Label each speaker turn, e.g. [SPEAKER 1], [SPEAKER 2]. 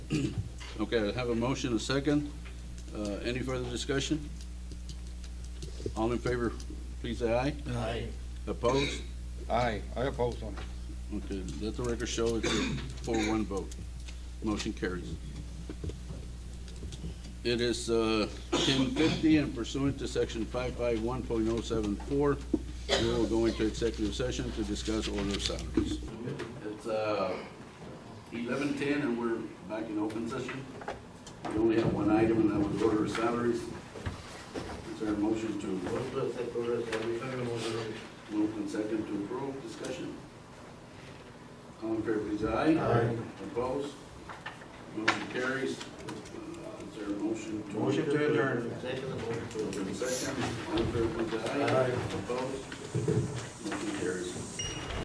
[SPEAKER 1] Okay, I have a motion, a second. Uh, Any further discussion? All in favor, please say aye.
[SPEAKER 2] Aye.
[SPEAKER 1] Opposed?
[SPEAKER 3] Aye, I oppose on it.
[SPEAKER 1] Okay, let the record show it's a four-one vote. Motion carries. It is uh, ten fifty and pursuant to section five-five-one point oh-seven-four, we will go into executive session to discuss order of salaries. It's eleven-ten and we're back in open session. We only have one item and that was order of salaries. Is there a motion to move and second to approve? Discussion? All in favor, please, aye.
[SPEAKER 2] Aye.
[SPEAKER 1] Opposed? Motion carries. Uh, Is there a motion to?
[SPEAKER 2] Motion to adjourn.
[SPEAKER 1] Second, all in favor, please, aye.
[SPEAKER 2] Aye.
[SPEAKER 1] Opposed? Motion carries.